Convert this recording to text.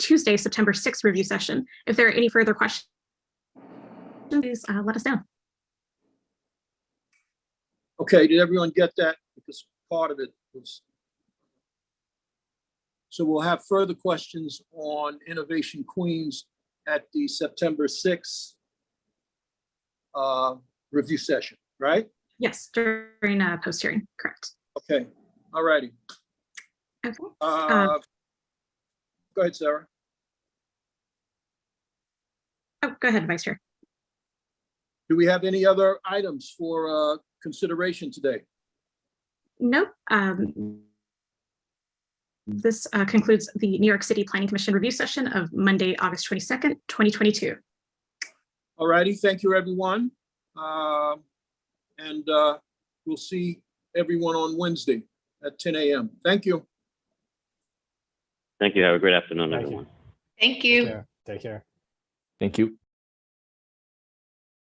Tuesday, September 6th review session. If there are any further questions, please uh, let us know. Okay, did everyone get that? Because part of it was. So we'll have further questions on Innovation Queens at the September sixth uh, review session, right? Yes, during uh, post-hearing, correct. Okay, all righty. Okay. Uh, Go ahead, Sarah. Oh, go ahead, Vice Chair. Do we have any other items for uh, consideration today? Nope. um, This uh, concludes the New York City Planning Commission review session of Monday, August 22nd, 2022. All righty, thank you, everyone. Um, And uh, we'll see everyone on Wednesday at ten AM. Thank you. Thank you. Have a great afternoon, Thank you. everyone. Thank Take you. care. Take care. Thank you.